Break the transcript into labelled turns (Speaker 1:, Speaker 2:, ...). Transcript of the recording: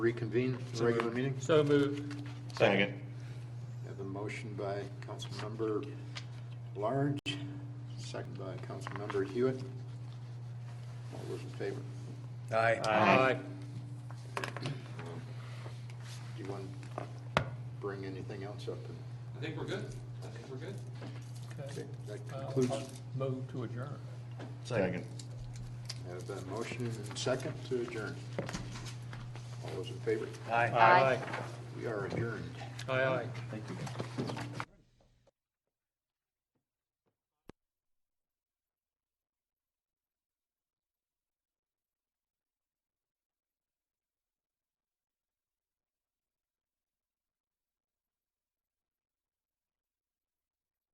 Speaker 1: reconvene the regular meeting.
Speaker 2: So moved.
Speaker 3: Second.
Speaker 1: We Have a motion by Councilmember Large, second by Councilmember Hewitt. All those in favor?
Speaker 4: Aye.
Speaker 2: Aye.
Speaker 1: Do you want to bring anything else up?
Speaker 5: I think we're good. I think we're good.
Speaker 2: Okay.
Speaker 1: That
Speaker 2: Uh,
Speaker 1: concludes,
Speaker 2: I'll Move to adjourn.
Speaker 3: Second.
Speaker 1: I have a motion and second to adjourn. All those in favor?
Speaker 4: Aye.
Speaker 2: Aye.
Speaker 1: We are adjourned.
Speaker 2: Aye, aye.